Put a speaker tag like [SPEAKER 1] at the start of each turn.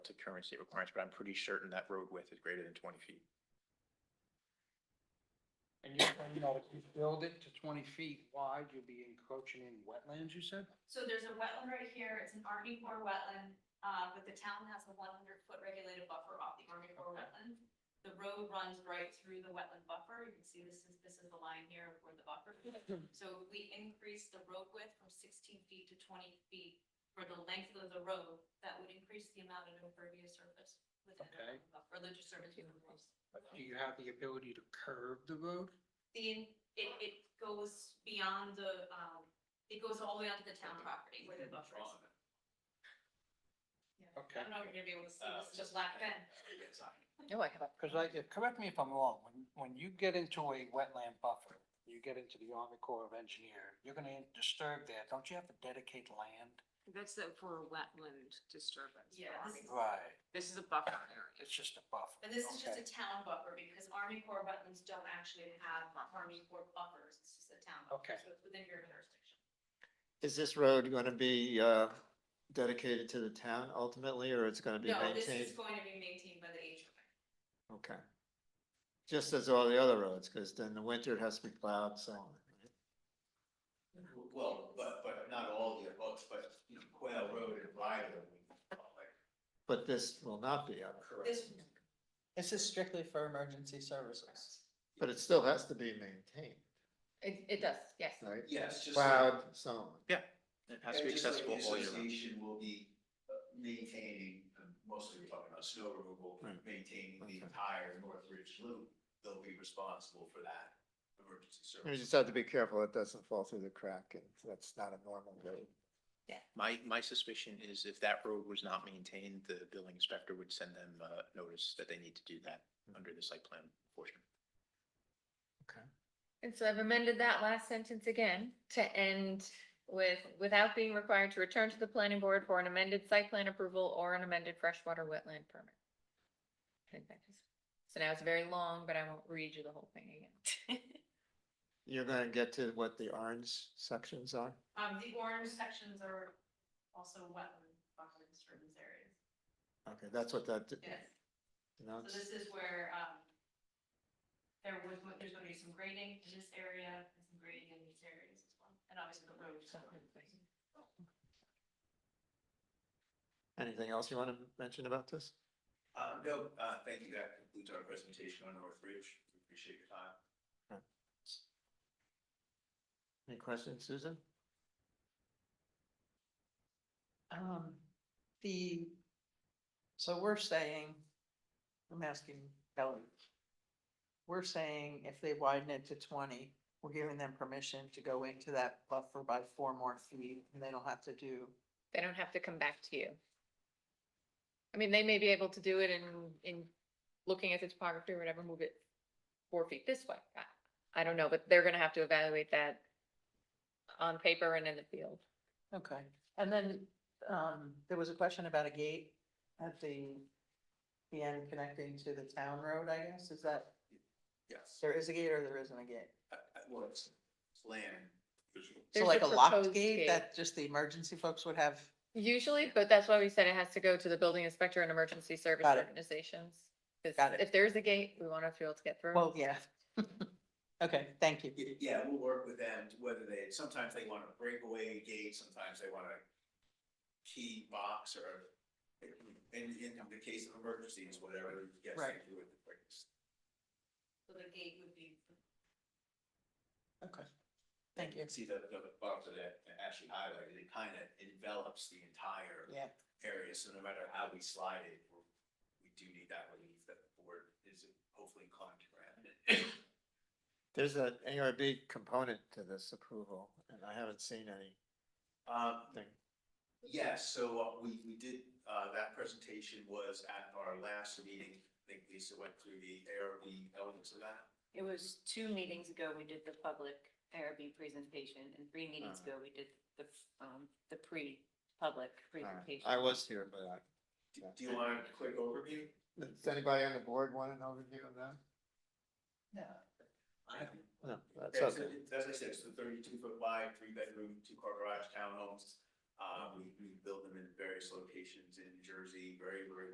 [SPEAKER 1] current state requirements, but I'm pretty certain that road width is greater than twenty feet.
[SPEAKER 2] And you're saying that if you build it to twenty feet wide, you'll be encroaching in wetlands, you said?
[SPEAKER 3] So there's a wetland right here, it's an Army Corps wetland, uh, but the town has a one hundred foot regulated buffer off the Army Corps wetland. The road runs right through the wetland buffer, you can see this is, this is the line here where the buffer. So if we increase the road width from sixteen feet to twenty feet for the length of the road, that would increase the amount of impervious surface within
[SPEAKER 2] Okay.
[SPEAKER 3] the wetland buffer, the surface within the road.
[SPEAKER 2] Do you have the ability to curve the road?
[SPEAKER 3] The, it, it goes beyond the, um, it goes all the way onto the town property where the buffer is. Yeah.
[SPEAKER 2] Okay. Uh,
[SPEAKER 3] I don't know if you're gonna be able to see this, just laugh
[SPEAKER 4] Uh,
[SPEAKER 3] in.
[SPEAKER 5] No, I have a.
[SPEAKER 2] Because I, if- correct me if I'm wrong, when, when you get into a wetland buffer, you get into the Army Corps of Engineer, you're gonna disturb that, don't you have to dedicate land?
[SPEAKER 6] That's the- for wetland disturbance.
[SPEAKER 3] Yeah,
[SPEAKER 6] Army
[SPEAKER 3] this is-
[SPEAKER 6] Corps.
[SPEAKER 2] Right,
[SPEAKER 6] This is a buffer area.
[SPEAKER 2] it's just a buffer.
[SPEAKER 3] And this is just
[SPEAKER 2] Okay.
[SPEAKER 3] a town buffer because Army Corps wetlands don't actually have Army Corps buffers, it's just a town buffer,
[SPEAKER 2] Okay.
[SPEAKER 3] so it's within your jurisdiction.
[SPEAKER 7] Is this road going to be uh, dedicated to the town ultimately, or it's going to be
[SPEAKER 3] No, this is
[SPEAKER 7] maintained?
[SPEAKER 3] going to be maintained by the HOA.
[SPEAKER 7] Okay. Just as all the other roads, because then the winter it has to be plowed, so. on.
[SPEAKER 4] Well, but, but not all the above, but, you know, Quail Road and Ryder.
[SPEAKER 7] But this will not be up,
[SPEAKER 3] This,
[SPEAKER 8] This is strictly for emergency services.
[SPEAKER 7] but it still has to be maintained,
[SPEAKER 5] It, it does, yes.
[SPEAKER 7] right?
[SPEAKER 4] Yes, just. like-
[SPEAKER 7] Plowed, so on.
[SPEAKER 1] It has to be
[SPEAKER 4] and just like
[SPEAKER 1] accessible
[SPEAKER 4] the
[SPEAKER 1] all year round.
[SPEAKER 4] Association will be uh, maintaining, um, mostly we're talking about snow removal,
[SPEAKER 7] Right.
[SPEAKER 4] maintaining
[SPEAKER 7] Okay.
[SPEAKER 4] the entire North Ridge Loop. They'll be responsible for that emergency
[SPEAKER 7] You
[SPEAKER 4] service.
[SPEAKER 7] just have to be careful it doesn't fall through the crack, and that's not a normal road.
[SPEAKER 1] My, my suspicion is if that road was not maintained, the building inspector would send them a notice that they need to do that under the site plan portion.
[SPEAKER 5] And so I've amended that last sentence again to end with, without being required to return to the planning board for an amended site plan approval or an amended freshwater wetland permit. I think that is- So now it's very long, but I won't read you the whole thing again.
[SPEAKER 7] You're going to get to what the orange sections are?
[SPEAKER 3] um, the orange sections are also wetland buffer disturbance areas.
[SPEAKER 7] Okay, that's what that.
[SPEAKER 3] Yes. So
[SPEAKER 7] denotes.
[SPEAKER 3] this is where, um, there was, there's gonna be some grading in this area, and some grading in these areas as well, and obviously the roads.
[SPEAKER 7] Anything else you want to mention about this?
[SPEAKER 4] Uh, no, uh, thank you. That concludes our presentation on North Ridge. We Appreciate your time.
[SPEAKER 7] Any questions, Susan?
[SPEAKER 8] Um, the, so we're saying, I'm asking Kelly. We're saying if they widen it to twenty, we're giving them permission to go into that buffer by four more feet and they don't have to do.
[SPEAKER 5] They don't have to come back to you. I mean, they may be able to do it in, in looking at the topography or whatever, move it four feet this way. I- I don't know, but they're gonna have to evaluate that on paper and in the field.
[SPEAKER 8] Okay. And then, um, there was a question about a gate at the, the end connecting to the town road, I guess, is that,
[SPEAKER 4] Yes.
[SPEAKER 8] there is a gate or there isn't a gate?
[SPEAKER 4] Uh, uh, Well, it's plan.
[SPEAKER 5] There's
[SPEAKER 8] So like
[SPEAKER 5] a
[SPEAKER 8] a locked
[SPEAKER 5] proposed
[SPEAKER 8] gate
[SPEAKER 5] gate.
[SPEAKER 8] that just the emergency folks would have
[SPEAKER 5] Usually, but that's why we said it has to go to the building inspector and emergency service
[SPEAKER 8] Got it.
[SPEAKER 5] organizations. 'Cause
[SPEAKER 8] Got it.
[SPEAKER 5] if there's a gate, we want to be able to get through.
[SPEAKER 8] Well, yeah. Okay, thank you.
[SPEAKER 4] Y- Yeah, we'll work with them, to whether they, sometimes they want a breakaway gate, sometimes they want a key box or in, in the case of emergencies, whatever gets them
[SPEAKER 8] Right.
[SPEAKER 4] through it the quickest.
[SPEAKER 3] So the gate would be
[SPEAKER 8] Okay. Thank you.
[SPEAKER 4] See the, the buffer that Ashley highlighted, it kind of envelops the entire
[SPEAKER 8] Yeah,
[SPEAKER 4] area, so no matter how we slide it, we're- we do need that relief that the board is hopefully inclined to grant.
[SPEAKER 7] There's an ARB component to this approval, and I haven't seen anything.
[SPEAKER 4] Um, Yes, so uh, we, we did, uh, that presentation was at our last meeting. I think Lisa went through the ARB elements of that.
[SPEAKER 9] It was two meetings ago, we did the public ARB presentation, and three meetings
[SPEAKER 7] Uh-huh.
[SPEAKER 9] ago, we did the, um, the pre-public
[SPEAKER 7] Uh,
[SPEAKER 9] presentation.
[SPEAKER 7] I was here, but I.
[SPEAKER 4] Do do you want a quick overview?
[SPEAKER 7] Does anybody on the board want an overview of that? No, that's
[SPEAKER 4] Yeah, so
[SPEAKER 7] okay.
[SPEAKER 4] it- As I said, it's the thirty-two foot wide, three bedroom, two car garage townhomes. Uh, we, we build them in various locations in Jersey, very, very